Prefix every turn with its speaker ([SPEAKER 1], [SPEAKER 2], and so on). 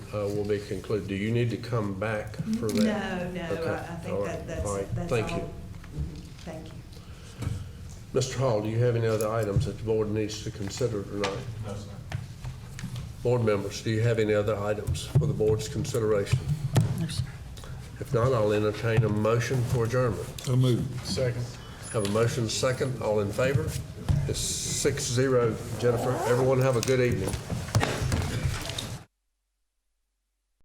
[SPEAKER 1] uh, will be concluded. Do you need to come back for that?
[SPEAKER 2] No, no,
[SPEAKER 1] Okay,
[SPEAKER 2] I I
[SPEAKER 1] all
[SPEAKER 2] think
[SPEAKER 1] right,
[SPEAKER 2] that, that's,
[SPEAKER 1] all right,
[SPEAKER 2] that's all.
[SPEAKER 1] thank you.
[SPEAKER 2] Mhm, Thank you.
[SPEAKER 1] Mr. Hall, do you have any other items that the board needs to consider tonight?
[SPEAKER 3] No, sir.
[SPEAKER 1] Board members, do you have any other items for the board's consideration? If not, I'll entertain a motion for adjournment.
[SPEAKER 4] So moved.
[SPEAKER 3] Second.
[SPEAKER 1] Have a motion second, all in favor? It's six zero, Jennifer. Everyone have a good evening.